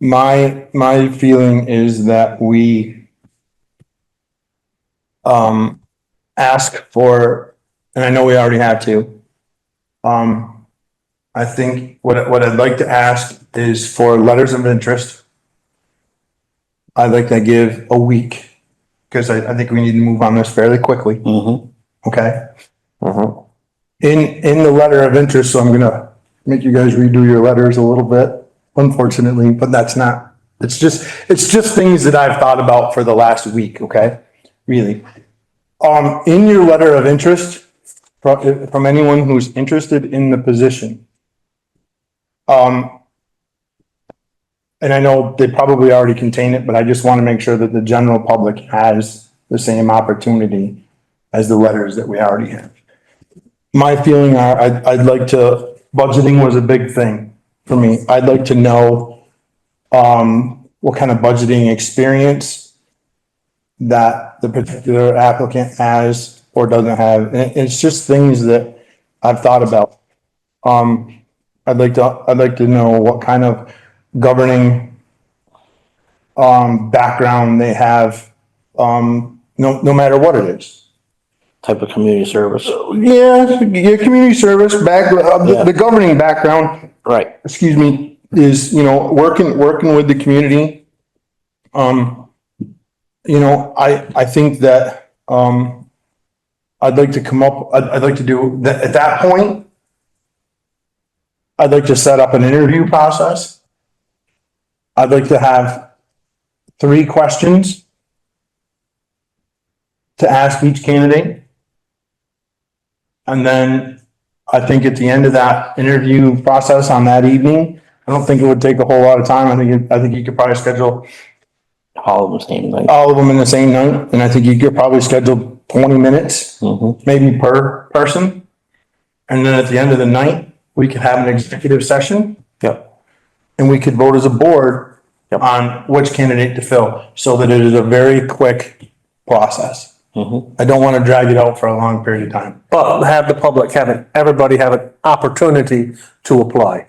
My, my feeling is that we um, ask for, and I know we already have to. Um, I think what, what I'd like to ask is for letters of interest. I'd like to give a week, because I, I think we need to move on this fairly quickly, Mm-hmm. okay? Mm-hmm. In, in the letter of interest, so I'm gonna make you guys redo your letters a little bit, unfortunately, but that's not, it's just, it's just things that I've thought about for the last week, okay? Really. Um, in your letter of interest, from, from anyone who's interested in the position. Um, and I know they probably already contain it, but I just wanna make sure that the general public has the same opportunity as the letters that we already have my feeling are, I'd, I'd like to, budgeting was a big thing for me. I'd like to know, um, what kind of budgeting experience that the particular applicant has or doesn't have. And it- it's just things that I've thought about. Um, I'd like to, I'd like to know what kind of governing um, background they have, um, no, no matter what it is. Type of community service. Yeah, your community service back, uh, the- the governing background, Right. excuse me, is, you know, working, working with the community. Um, you know, I, I think that, um, I'd like to come up, I'd, I'd like to do, that, at that point, I'd like to set up an interview process. I'd like to have three questions to ask each candidate. And then I think at the end of that interview process on that evening, I don't think it would take a whole lot of time. I think, it- I think you could probably schedule All of the same thing. all of them in the same night. And I think you could probably schedule twenty minutes, Mm-hmm. maybe per person. And then at the end of the night, we could have an executive session Yep. and we could vote as a board Yep. on which candidate to fill, so that it is a very quick process. Mm-hmm. I don't want to drag it out for a long period of time. but have the public have it, everybody have an opportunity to apply.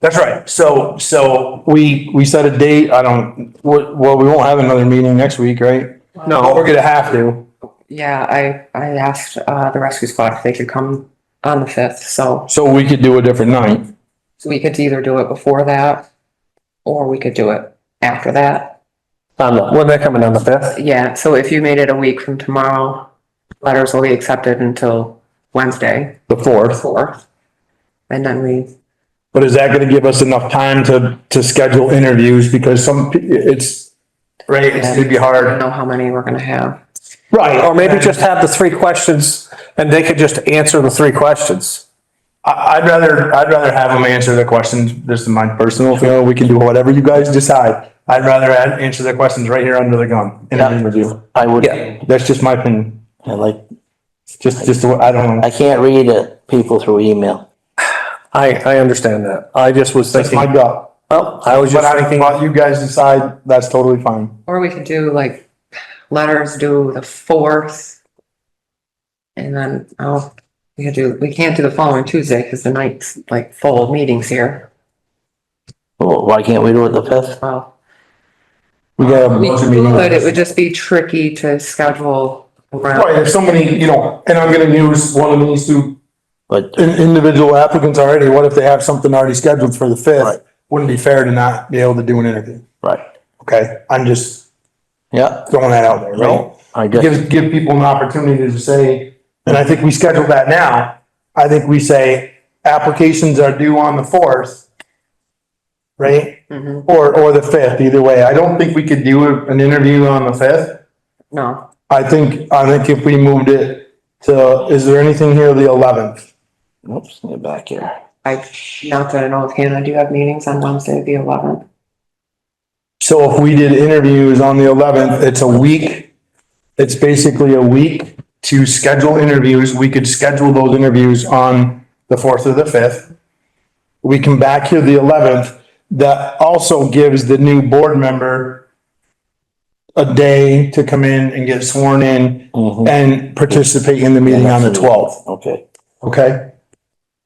That's right. So, so we, we set a date. I don't, well, well, we won't have another meeting next week, right? But We're gonna have to. Yeah, I, I asked, uh, the rescue squad if they could come on the fifth, so, So we could do a different night. so we could either do it before that, or we could do it after that. On the, when they're coming on the fifth? Yeah, so if you made it a week from tomorrow, letters will be accepted until Wednesday, The fourth. fourth. And then we, But is that gonna give us enough time to, to schedule interviews? Because some, pe- it's, right, it's gonna be I don't hard. know how many we're gonna have. Right, Or maybe just have the three questions and they could just answer the three questions. I, I'd rather, I'd rather have them answer the questions. This is my personal feeling. We can do whatever you guys decide. I'd rather an- answer the questions right here under the gun in an interview. I would, Yeah. I That's just my opinion. like, Just, just, the way- I don't know. I can't read it, people through email. I, I understand that. I just was That's my thinking, gut. oh, I was But just I thinking, thought you guys decide, that's totally fine. Or we could do like, letters do the fourth. And then, oh, we could do, we can't do the following Tuesday, cause the night's like full of meetings here, Well, Oh, why can't we do it the fifth? well. We got a We bunch of meetings. could, it would just be tricky to schedule around. Right, there's so many, you know, and I'm gonna use one of these two But in- individual applicants already, what if they have something already scheduled for the Right. fifth? Wouldn't be fair to not be able to do an interview, Right, okay? I'm just yeah, throwing that out there, right? no, I just, Give, give people an opportunity to say, and I think we schedule that now. I think we say applications are due on the fourth, right? Mhm, Or, or the fifth, either way. I don't think we could do a- an interview on the fifth. No, I think, I think if we moved it to, is there anything here the eleventh? oops, get back here. I, not that I know of, Hannah, do you have meetings on Wednesday, the eleventh? So if we did interviews on the eleventh, it's a week. It's basically a week to schedule interviews. We could schedule those interviews on the fourth or the fifth. We come back here the eleventh. That also gives the new board member a day to come in and get sworn in Mhm. and participate in the meeting on the twelfth. Okay, Okay?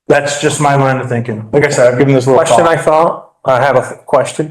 That's just my line of thinking. Like I said, I've given this a little thought. question I thought, I have a question.